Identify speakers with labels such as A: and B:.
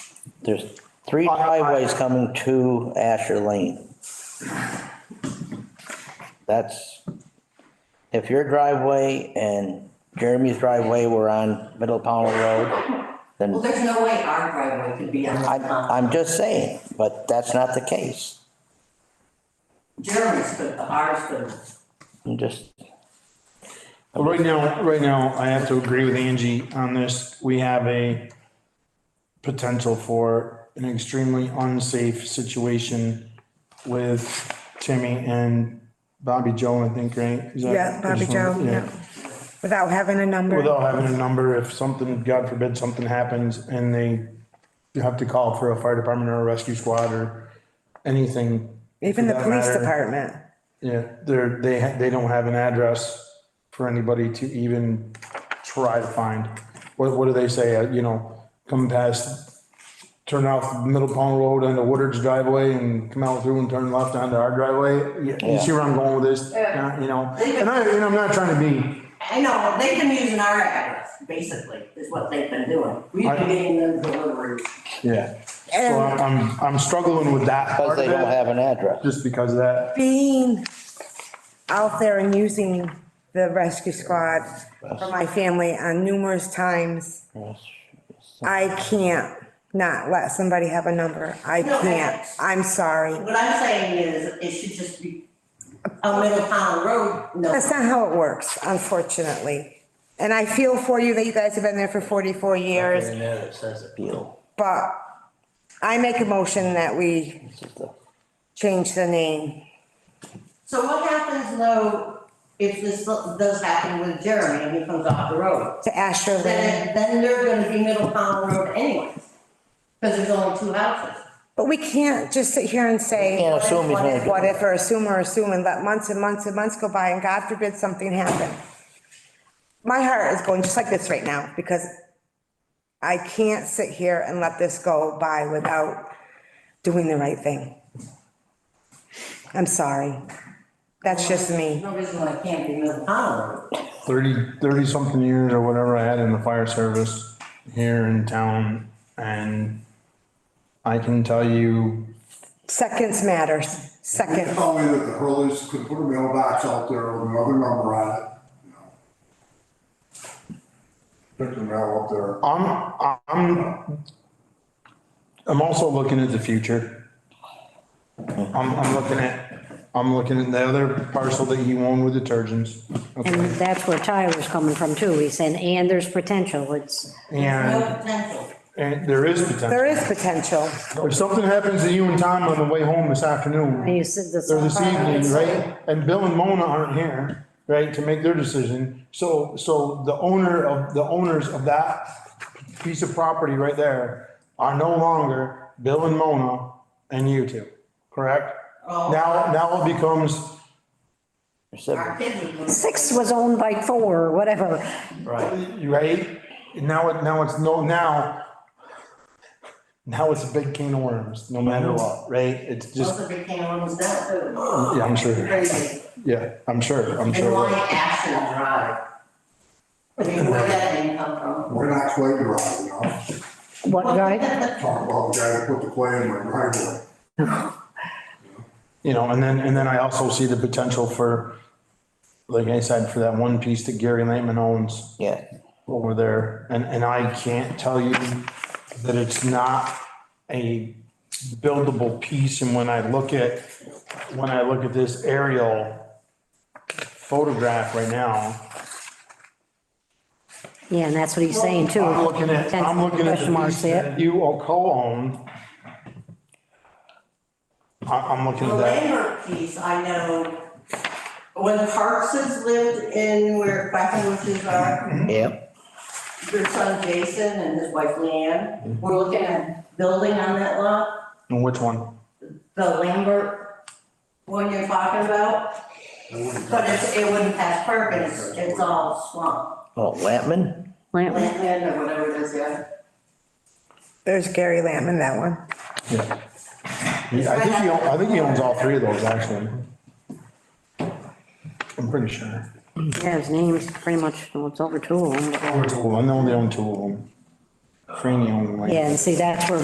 A: there's three driveways coming to Asher Lane. That's, if your driveway and Jeremy's driveway were on Middle Powell Road,
B: Well,
A: then
B: there's no way our driveway could be on the
A: I'm,
B: pond.
A: I'm just saying, but that's not the case.
B: Jeremy's could, but ours couldn't.
A: I'm just,
C: Well, Right now, right now, I have to agree with Angie on this. We have a potential for an extremely unsafe situation with Timmy and Bobby Joe, I think, right? Is that-
D: Yeah, Bobby Joe, yeah. Without having a number.
C: Without having a number, if something, God forbid, something happens and they you have to call for a fire department or a rescue squad or anything.
D: Even
C: for
D: the
C: that
D: police
C: matter.
D: department.
C: Yeah, they're, they, ha- they don't have an address for anybody to even try to find. What, what do they say, uh, you know, come past, turn off Middle Pond Road onto Woodard's driveway and come out through and turn left onto our driveway? You- You see where I'm going with this,
B: Yeah.
C: you know? And I, and I'm not trying to be,
B: I know, they've been using our address, basically, is what they've been doing. We've
C: I-
B: been getting them deliveries.
C: yeah, so
D: And
C: I'm, I'm struggling with that
A: because
C: part
A: they
C: of
A: don't
C: it,
A: have an address.
C: just because of that.
D: being out there and using the rescue squad for my family on numerous times, I can't not let somebody have a number. I
B: No, I-
D: can't. I'm sorry.
B: What I'm saying is, it should just be on Middle Pond Road, no.
D: That's not how it works, unfortunately. And I feel for you that you guys have been there for forty-four years,
A: And then it says appeal.
D: but I make a motion that we
A: This is the,
D: change the name.
B: So what happens though, if this does happen with Jeremy and he comes off the road?
D: to Asher Lane.
B: Then, then they're gonna be Middle Pond Road anyways, because there's only two houses.
D: But we can't just sit here and say.
A: can't assume he's gonna do it.
D: What if, or assume or assume, and let months and months and months go by, and God forbid something happen. My heart is going just like this right now, because I can't sit here and let this go by without doing the right thing. I'm sorry. That's just me.
B: No reason why it can't be Middle Pond Road.
C: Thirty, thirty-something years or whatever I had in the fire service here in town, and I can tell you
D: Seconds matters.
E: They
D: Second.
E: told me that the Hurleys could put a mailbox out there with another number on it, you know. Pick the mail up there.
C: I'm, I'm, I'm also looking at the future. I'm, I'm looking at, I'm looking at the other parcel that you own with detergents.
F: And
C: Okay,
F: that's where Ty was coming from too. He's saying, and there's potential. It's,
B: No
C: And,
B: potential.
C: and there is
D: There
C: potential.
D: is potential.
C: If something happens to you and Tom on the way home this afternoon,
F: he said this.
C: or this evening, right? And Bill and Mona aren't here, right, to make their decision. So, so the owner of, the owners of that piece of property right there are no longer Bill and Mona and you two, correct?
B: Oh.
C: Now, now it becomes,
B: Our kids would.
F: Six was owned by four, or whatever.
A: Right.
C: right? Now it, now it's no, now, now it's a big can of worms, no matter what, right?
B: Most
C: It's just,
B: of it came almost down too.
C: yeah, I'm sure,
B: Crazy.
C: yeah, I'm sure, I'm
B: And why
C: sure.
B: Ashen Drive? I mean, where that name come from?
E: We're not clay dry, you know,
F: What, guy?
E: talk about the guy that put the clay in my driveway.
C: You know, and then, and then I also see the potential for, like I said, for that one piece that Gary Lehman owns
A: Yeah,
C: over there. And, and I can't tell you that it's not a buildable piece. And when I look at, when I look at this aerial photograph right now,
F: Yeah, and that's what he's saying too.
C: I'm looking at, I'm looking at
F: Question
C: the
F: marks
C: piece
F: there.
C: that you all co-own. I, I'm looking
B: The
C: at that.
B: Lambert piece, I know, when Parkses lived in where Quackenbush bushes are,
A: yeah,
B: uh, your son Jason and his wife Leanne, were looking at building on that lot,
C: And which one?
B: the Lambert one you're talking about,
E: I wouldn't-
B: but it's, it wouldn't pass perk, and it's, it's all swamp,
A: oh, Lampman?
F: Plant-
B: land or whatever it is, yeah.
D: There's Gary Lamb in that one.
C: Yeah. Yeah, I think he, own- I think he owns all three of those, actually. I'm pretty sure.
F: Yeah, his name's pretty much, well, it's over two of them.
C: Over two, I know they own two of them. Franny owns like.
F: Yeah, and see, that's where